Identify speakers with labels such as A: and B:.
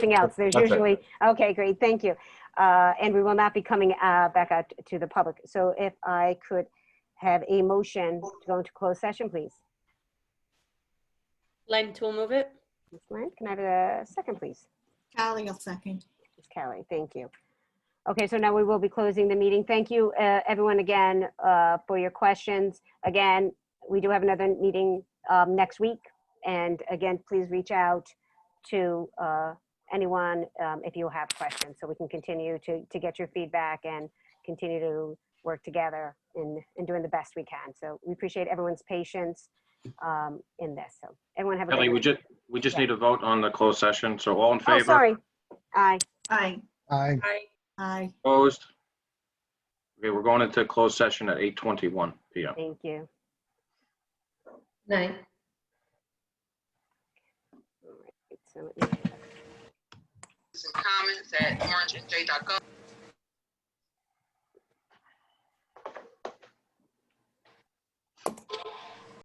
A: anything else. There's
B: That's it.
A: usually, okay, great, thank you. Uh, And we will not be coming uh, back out to the public. So if I could have a motion to go into closed session, please.
C: Len, to move it?
A: Ms. Lynn, can I have a second, please?
D: Callie will second.
A: Ms. Kelly, thank you. Okay, so now we will be closing the meeting. Thank you, uh, everyone, again, uh, for your questions. Again, we do have another meeting um, next week. And again, please reach out to uh, anyone um, if you have questions, so we can continue to, to get your feedback and continue to work together in, in doing the best we can. So we appreciate everyone's patience um, in this. So everyone have a
B: Kelly, we
A: good.
B: just, we just need a vote on the closed session, so all in
A: Oh,
B: favor?
A: sorry. Aye.
D: Aye.
E: Aye.
C: Aye.
D: Aye.
B: Opposed? Okay, we're going into closed session at 8:21 PM.
A: Thank you.
C: Night.
A: All right, so let me-
F: and comments at orangeandj.gov.